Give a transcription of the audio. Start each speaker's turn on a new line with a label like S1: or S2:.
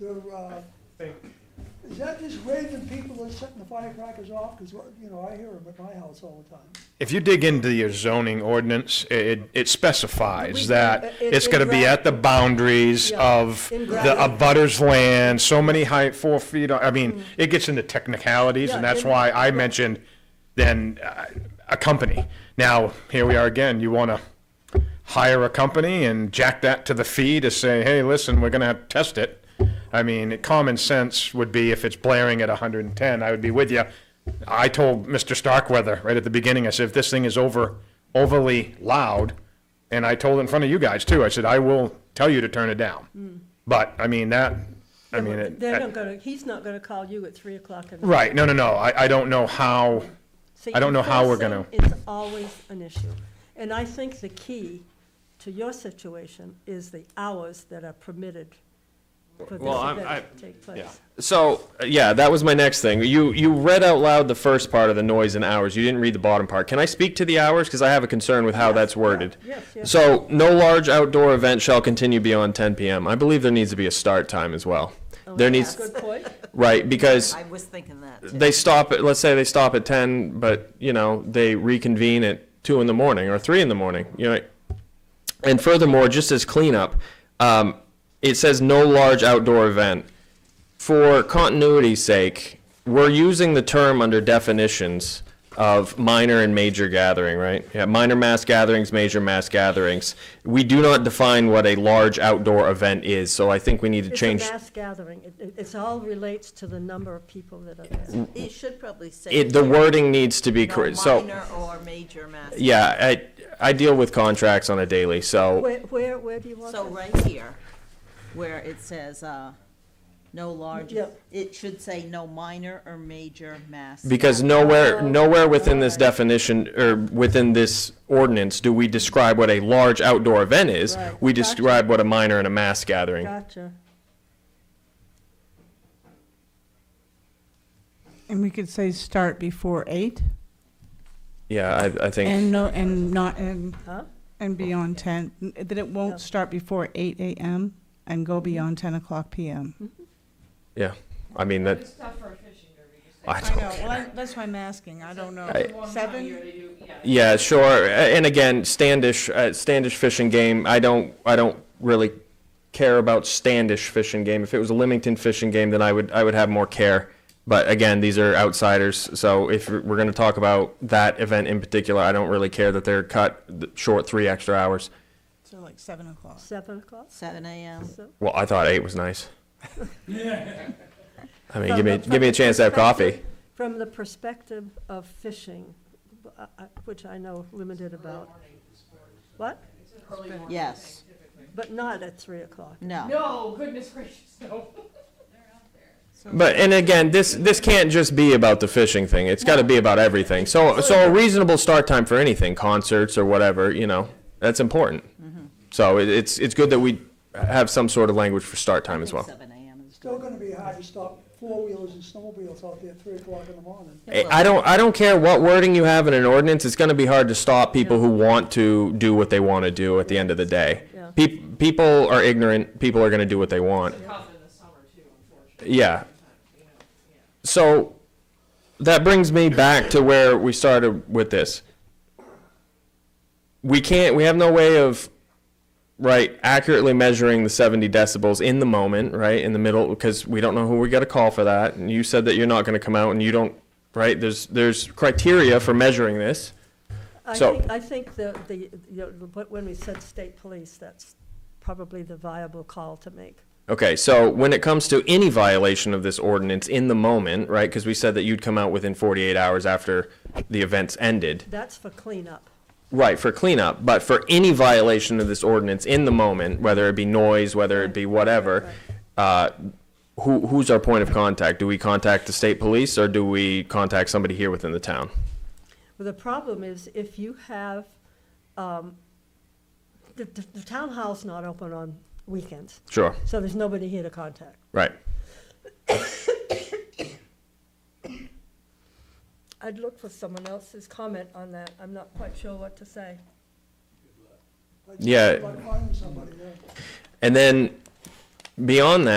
S1: they're, uh,
S2: think,
S1: is that just raising people that's setting the firecrackers off? Because, you know, I hear them at my house all the time.
S3: If you dig into your zoning ordinance, it, it
S4: We-
S3: specifies that
S4: it-
S3: it's gonna be at the boundaries
S4: Yeah,
S3: of
S4: in
S3: the
S4: gravity.
S3: abutters land, so many height, four feet, I mean, it gets into technicalities, and
S4: Yeah,
S3: that's
S4: in-
S3: why I mentioned then uh, a company. Now, here we are again, you wanna hire a company and jack that to the fee to say, hey, listen, we're gonna have to test it. I mean, common sense would be if it's blaring at hundred and ten, I would be with you. I told Mr. Starkweather right at the beginning, I said, if this thing is over, overly loud, and I told in front of you guys too, I said, I will tell you to turn it down. But, I mean, that, I mean, it.
S4: Hmm. They're not gonna, he's not gonna call you at three o'clock in the.
S3: Right, no, no, no, I, I don't know how,
S4: See,
S3: I don't know how we're
S4: enforcing is always an issue. And I think the key to your situation is the hours that are permitted for this
S5: Well, I'm-
S4: event
S5: I-
S4: to take place.
S5: So uh, yeah, that was my next thing. You you read out loud the first part of the noise and hours. You didn't read the bottom part. Can I speak to the hours because I have a concern with how that's worded?
S4: yes, yes.
S5: So no large outdoor event shall continue beyond 10 p.m. I believe there needs to be a start time as well. there needs
S4: Good point.
S5: right because
S6: I was thinking that. too.
S5: they stop at let's say they stop at 10, but you know they reconvene at two in the morning or three in the morning. You know, and furthermore, just as cleanup, um, it says no large outdoor event for continuity's sake, we're using the term under definitions of minor and major gathering, right? Yeah, minor mass gatherings, major mass gatherings. We do not define what a large outdoor event is, so I think we need to
S4: It's a
S5: change.
S4: mass gathering. It- It, it's all relates to the number of people that are there.
S6: You should probably say.
S5: It, the wording needs to be
S6: no
S5: correct, so,
S6: Minor or major mass.
S5: yeah, I, I deal with contracts on a daily, so,
S4: Where, where, where do you want
S6: So
S4: that?
S6: right here, where it says, uh, no large,
S4: Yeah.
S6: it should say no minor or major mass.
S5: because nowhere, nowhere within this definition, or within this ordinance, do we describe what a large outdoor event is.
S4: Right.
S5: We
S4: Gotcha.
S5: describe what a minor and a mass gathering
S4: Gotcha.
S7: And we could say start before eight
S5: Yeah, I, I think,
S7: and no, and not, and,
S4: Huh?
S7: and beyond ten, n- that it
S4: Yeah.
S7: won't start before eight AM and go beyond ten o'clock PM.
S5: yeah, I mean, that,
S8: It's tough for a fishing derby to say.
S5: I don't,
S7: well, that's why I'm asking, I don't know.
S8: One time a year
S7: Seven?
S8: they do- yeah.
S5: yeah, sure, A- and again, Standish, uh, Standish fishing game, I don't, I don't really care about Standish fishing game. If it was a Leamington fishing game, then I would, I would have more care. But again, these are outsiders, so if we're gonna talk about that event in particular, I don't really care that they're cut th- short three extra hours.
S7: So like seven o'clock.
S4: Seven o'clock?
S6: Seven AM.
S4: So-
S5: Well, I thought eight was nice. I mean,
S4: From
S5: give me,
S4: the-
S5: give me a chance to have coffee.
S4: From the perspective of fishing, uh, uh, which I know limited about. What?
S6: Yes,
S4: But not at three o'clock.
S6: no.
S8: No, Oh, goodness gracious, no.
S5: But and again, this this can't just be about the fishing thing. It's got to be about everything. So so a reasonable start time for anything, concerts or whatever, you know, that's important. So it, it's it's good that we have some sort of language for start time as well.
S6: Seven AM is
S1: Still gonna be hard to stop four-wheelers and snowmobiles out there at three o'clock in the morning.
S5: I Eh, I don't I don't care what wording you have in an ordinance. It's going to be hard to stop people who want to do what they want to do at the end of the day.
S4: Yeah.
S5: Peop people are ignorant. People are going to do what they want.
S8: Tough in the summer too, unfortunately.
S5: Yeah. So that brings me back to where we started with this. We can't, we have no way of, right, accurately measuring the 70 decibels in the moment, right, in the middle, because we don't know who we got to call for that. And you said that you're not going to come out and you don't, right, there's, there's criteria for measuring this.
S4: I
S5: So-
S4: think, I think the, the, you know, what- when we said state police, that's probably the viable call to make.
S5: Okay, so when it comes to any violation of this ordinance in the moment, right, because we said that you'd come out within 48 hours after the events ended.
S4: That's for cleanup.
S5: Right, for cleanup, but for any violation of this ordinance in the moment, whether it be noise, whether it be whatever, uh, who, who's our point of contact? Do we contact the state police or do we contact somebody here within the town?
S4: Well, the problem is if you have, um, the, the the town hall's not open on weekends,
S5: Sure,
S4: so there's nobody here to contact.
S5: right.
S4: I'd look for someone else's comment on that. I'm not quite sure what to say.
S1: Like,
S5: Yeah.
S1: like finding somebody, yeah.
S5: And then beyond that.